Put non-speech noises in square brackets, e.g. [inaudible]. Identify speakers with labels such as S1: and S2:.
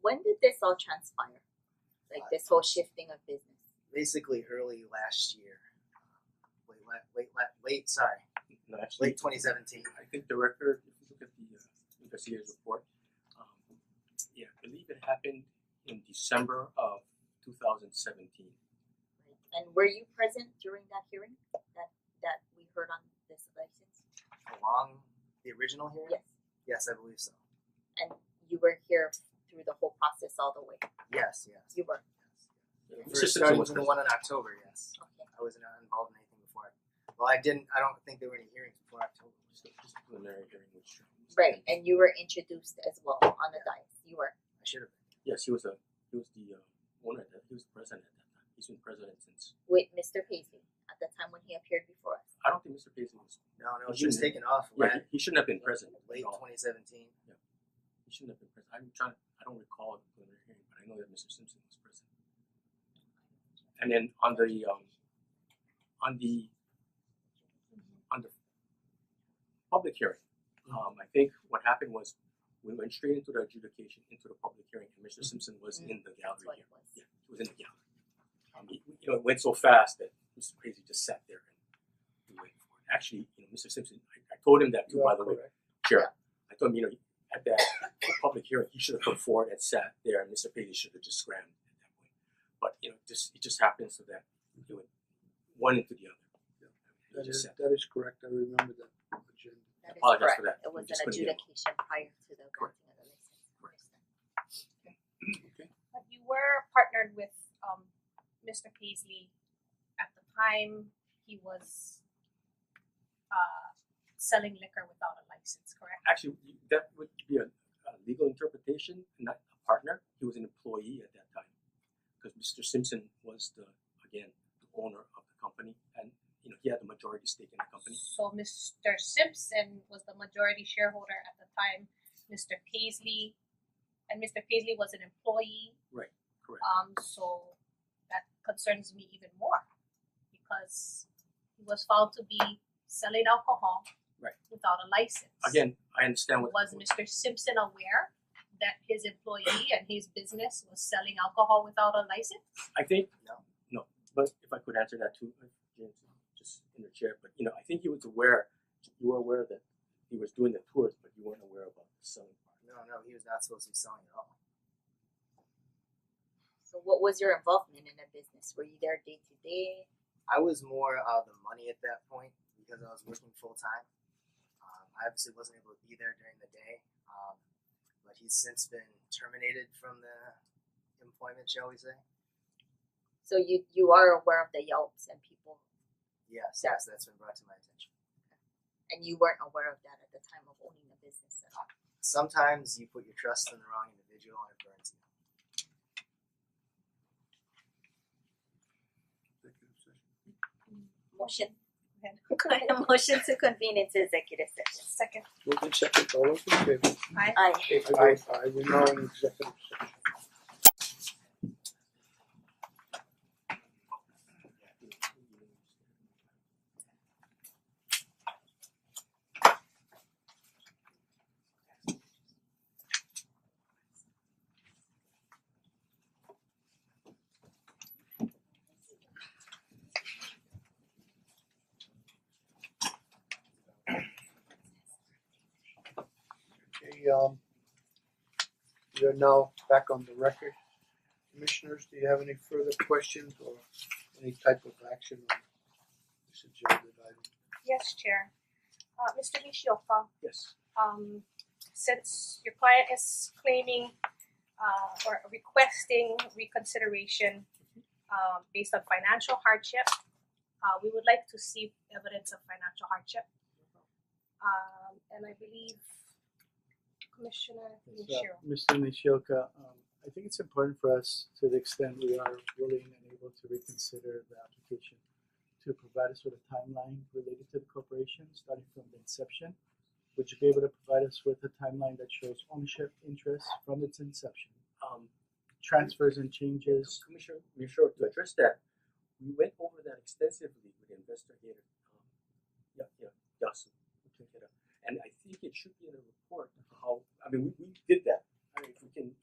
S1: when did this all transpire? Like this whole shifting of business.
S2: basically early last year, late la- late la- late sorry,
S3: No, actually,
S2: late 2017.
S3: I think the record, if you look at the uh, Garcia's report, um, yeah, I believe it happened in December of 2017.
S1: Right. And were you present during that hearing that that we heard on this license?
S2: Along the original hearing.
S1: Yes.
S2: Yes, I believe so.
S1: And you were here through the whole process all the way.
S2: Yes, yes.
S1: You were.
S3: Yeah,
S2: For
S3: Mr.
S2: starting
S3: was
S2: to the
S3: present.
S2: one in October, yes.
S1: Okay.
S2: I wasn't involved in anything before. Well, I didn't. I don't think there were any hearings before October.
S3: It's the disciplinary hearing which-
S1: Right. And you were introduced as well on the dais. You were.
S2: I should have.
S3: Yes, he was a he was the uh, owner. At that, he was president at that time. He's been president since.
S1: with Mr. Paisley at the time when he appeared before us.
S3: I don't think Mr. Paisley was.
S2: No, no,
S3: You
S2: she was
S3: shouldn't
S2: taken off
S3: Mm-hmm. Yeah,
S2: late,
S3: he, he shouldn't have been president. at
S2: late
S3: all.
S2: 2017.
S3: He shouldn't have been president. I'm trying. I don't recall the preliminary hearing, but I know that Mr. Simpson was present. And then on the um, on the on the public hearing, um, I think what happened was we went straight into the adjudication, into the public hearing, and Mr. Simpson was in the
S1: That's what
S3: gallery
S1: it was.
S3: Yeah, he was in the gallery. Um, he- you know, it went so fast that Mr. Paisley just sat there and we waited for it. Actually, you know, Mr. Simpson, I, I told him that too, by the way, Chair. I told him, you know, at that public hearing, he should have come forward and sat there, and Mr. Paisley should have just scrammed at that point. But, you know, just, it just happened so that it went one into the other. He
S4: That
S3: just
S4: is,
S3: sat.
S4: that is correct, I remember that agenda.
S1: That is
S3: Apologize
S1: correct.
S3: for that.
S1: It
S3: We
S1: was
S3: just
S1: an
S3: couldn't get it.
S1: adjudication prior to the
S3: Correct.
S1: granting of the license.
S3: Correct.
S5: But you were partnered with um Mr. Paisley at the time he was uh selling liquor without a license, correct?
S3: Actually, that would be a, a legal interpretation, not a partner. He was an employee at that time. Because Mr. Simpson was the, again, the owner of the company, and, you know, he had the majority stake in the company.
S5: So Mr. Simpson was the majority shareholder at the time, Mr. Paisley and Mr. Paisley was an employee,
S3: Correct.
S5: um so that concerns me even more because he was found to be selling alcohol
S3: Right.
S5: without a license.
S3: Again, I understand what.
S5: was Mr. Simpson aware that his employee and his business was selling alcohol without a license?
S3: I think
S2: No.
S3: no, but if I could answer that too, uh, James, just in the chair. But you know, I think he was aware. You were aware that he was doing the tours, but you weren't aware about the selling part.
S2: No, no, he was not supposed to be selling at all.
S1: So what was your involvement in the business? Were you there day to day?
S2: I was more of the money at that point because I was working full time. Um, I obviously wasn't able to be there during the day, um, but he's since been terminated from the employment, shall we say?
S1: So you you are aware of the Yelps and people
S2: Yes,
S1: Yeah.
S2: yes, that's been brought to my attention.
S1: and you weren't aware of that at the time of owning the business at all.
S2: Sometimes you put your trust in the wrong individual and it burns you.
S4: Executive session.
S1: Motion. [laughs] Could I have a motion to convene into executive session?
S5: Second.
S4: Moved in second, all those in favor?
S1: Aye.
S4: I vote aye, we're now in executive session. Okay, um, we are now back on the record. Commissioners, do you have any further questions or any type of action on this agenda item?
S5: Yes, Chair. Uh Mister Nishioka,
S3: Yes.
S5: um since your client is claiming uh or requesting reconsideration um based on financial hardship, uh we would like to see evidence of financial hardship. Um and I believe Commissioner Nishio.
S6: Mr. Nishioka, Uh, um, I think it's important for us, to the extent we are willing and able to reconsider the application, to provide us with a timeline related to the corporation, starting from the inception. Would you be able to provide us with a timeline that shows ownership interest from its inception,
S3: Um,
S6: transfers and changes?
S3: Commissioner, we sure to address that. We went over that extensively with investigator. Um, yeah, yeah, Yasu, who took it up. And I think it should be in the report. How I mean, we, we did that. I mean, if we can